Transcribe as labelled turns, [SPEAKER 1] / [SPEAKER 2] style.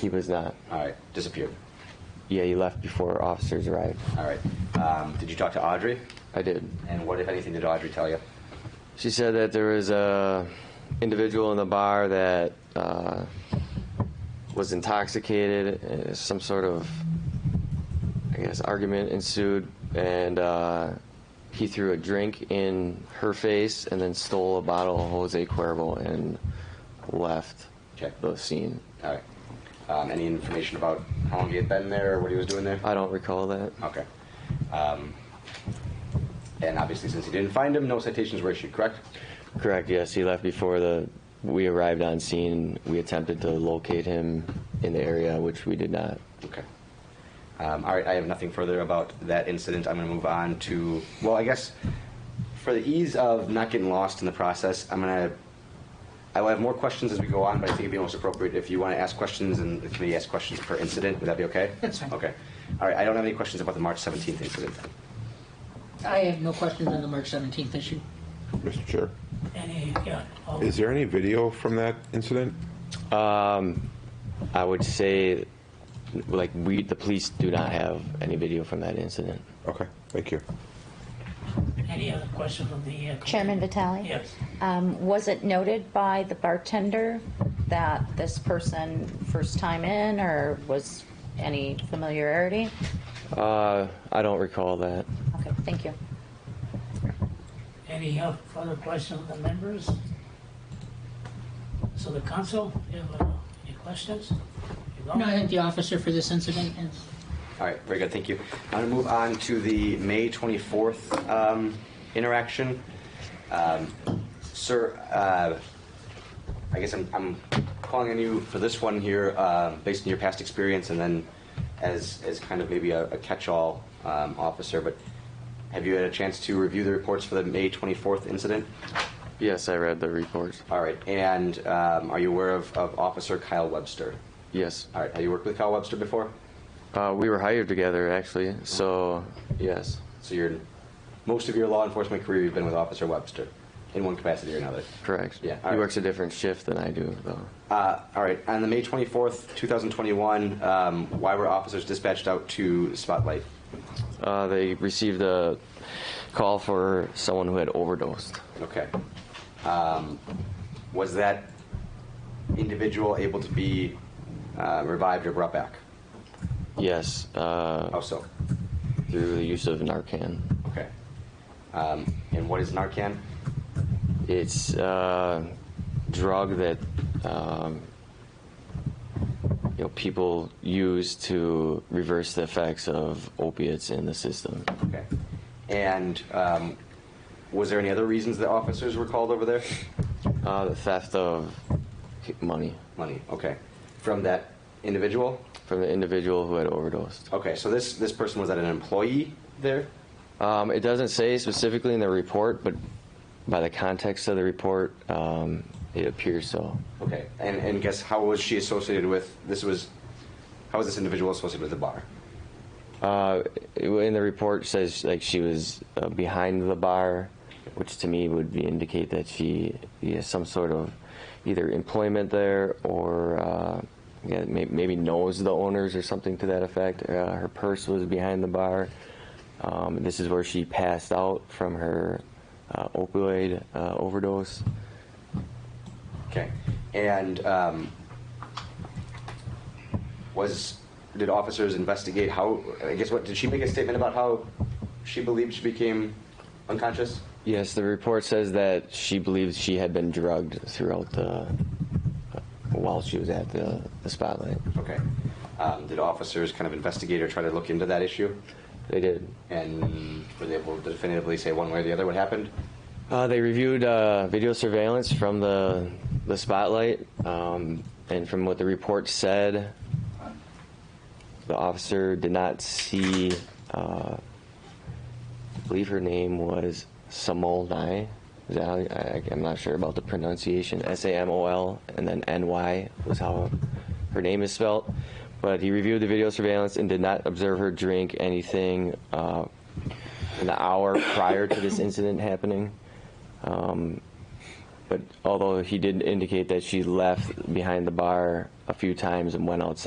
[SPEAKER 1] He was not.
[SPEAKER 2] All right, disappeared.
[SPEAKER 1] Yeah, he left before officers arrived.
[SPEAKER 2] All right. Um, did you talk to Audrey?
[SPEAKER 1] I did.
[SPEAKER 2] And what, if anything, did Audrey tell you?
[SPEAKER 1] She said that there was a individual in the bar that uh, was intoxicated. and Some sort of, I guess, argument ensued, and uh, he threw a drink in her face and then stole a bottle of Jose Cuervo and left
[SPEAKER 2] Okay.
[SPEAKER 1] the scene.
[SPEAKER 2] All right. Um, any information about how long he had been there or what he was doing there?
[SPEAKER 1] I don't recall that.
[SPEAKER 2] Okay. Um, and obviously, since he didn't find him, no citations were issued, correct?
[SPEAKER 1] Correct. Yes, he left before the we arrived on scene. We attempted to locate him in the area, which we did not.
[SPEAKER 2] Okay. Um, all right, I have nothing further about that incident. I'm going to move on to, well, I guess for the ease of not getting lost in the process, I'm going to, I will have more questions as we go on, but I think it'd be most appropriate if you want to ask questions and the committee asks questions per incident. Would that be okay?
[SPEAKER 3] That's fine.
[SPEAKER 2] Okay. All right, I don't have any questions about the March 17th incident.
[SPEAKER 3] I have no questions on the March 17th issue.
[SPEAKER 4] Mr. Chair,
[SPEAKER 3] Any, yeah.
[SPEAKER 5] oh,
[SPEAKER 3] all-
[SPEAKER 4] is there any video from that incident?
[SPEAKER 1] Um, I would say, like we, the police do not have any video from that incident.
[SPEAKER 4] Okay, thank you.
[SPEAKER 5] Any other question from the? uh,
[SPEAKER 6] Chairman Vitale?
[SPEAKER 5] Yes.
[SPEAKER 6] Um, Was it noted by the bartender that this person first time in, or was any familiarity?
[SPEAKER 1] Uh, I don't recall that.
[SPEAKER 6] Okay, thank you.
[SPEAKER 5] Any uh, further questions from the members? So the council, you have uh, any questions? You don't?
[SPEAKER 3] No, I think the officer for this incident is.
[SPEAKER 2] All right, very good, thank you. I'm going to move on to the May 24th um, interaction. Um, Sir, uh, I guess I'm, I'm calling on you for this one here, uh, based on your past experience, and then as, as kind of maybe a a catch-all um, officer, but have you had a chance to review the reports for the May 24th incident?
[SPEAKER 1] Yes, I read the report.
[SPEAKER 2] All right, and um, are you aware of, of Officer Kyle Webster?
[SPEAKER 1] Yes,
[SPEAKER 2] All right, have you worked with Kyle Webster before?
[SPEAKER 1] uh, we were hired together actually. So yes,
[SPEAKER 2] So your most of your law enforcement career, you've been with Officer Webster, in one capacity or another.
[SPEAKER 1] correct.
[SPEAKER 2] Yeah,
[SPEAKER 1] he
[SPEAKER 2] all right.
[SPEAKER 1] works a different shift than I do, though.
[SPEAKER 2] Uh, all right. On the May twenty fourth, two thousand twenty one, um, why were officers dispatched out to Spotlight?
[SPEAKER 1] Uh, they received a call for someone who had overdosed.
[SPEAKER 2] Okay. Um, was that individual able to be uh, revived or brought back?
[SPEAKER 1] Yes, uh,
[SPEAKER 2] How so?
[SPEAKER 1] through the use of Narcan.
[SPEAKER 2] Okay. Um, and what is Narcan?
[SPEAKER 1] It's a drug that um, you know people use to reverse the effects of opiates in the system.
[SPEAKER 2] Okay. And um, was there any other reasons that officers were called over there?
[SPEAKER 1] Uh, the theft of money
[SPEAKER 2] Money. Okay. From that individual.
[SPEAKER 1] from the individual who had overdosed.
[SPEAKER 2] Okay, so this this person was that an employee there?
[SPEAKER 1] Um, it doesn't say specifically in the report, but by the context of the report, um, it appears so.
[SPEAKER 2] Okay, and and guess how was she associated with this was? How was this individual associated with the bar?
[SPEAKER 1] Uh, in the report says like she was uh, behind the bar, which to me would be indicate that she has some sort of either employment there or uh, yeah, may- maybe knows the owners or something to that effect. Uh, her purse was behind the bar. Um, this is where she passed out from her uh, opioid uh, overdose.
[SPEAKER 2] Okay, and um, was did officers investigate how? I guess what did she make a statement about how she believed she became unconscious?
[SPEAKER 1] Yes, the report says that she believes she had been drugged throughout the uh, while she was at the, the spotlight.
[SPEAKER 2] Okay, um, did officers kind of investigate or try to look into that issue?
[SPEAKER 1] They did.
[SPEAKER 2] And were they able to definitively say one way or the other what happened?
[SPEAKER 1] Uh, they reviewed uh, video surveillance from the the spotlight, um, and from what the report said, the officer did not see. Uh, I believe her name was Samolnai. Is that how, I, I'm not sure about the pronunciation. S A M O L and then N Y was how her name is spelt. But he reviewed the video surveillance and did not observe her drink anything uh, in the hour prior to this incident happening. But although he did indicate that she left behind the bar a few times and went outside.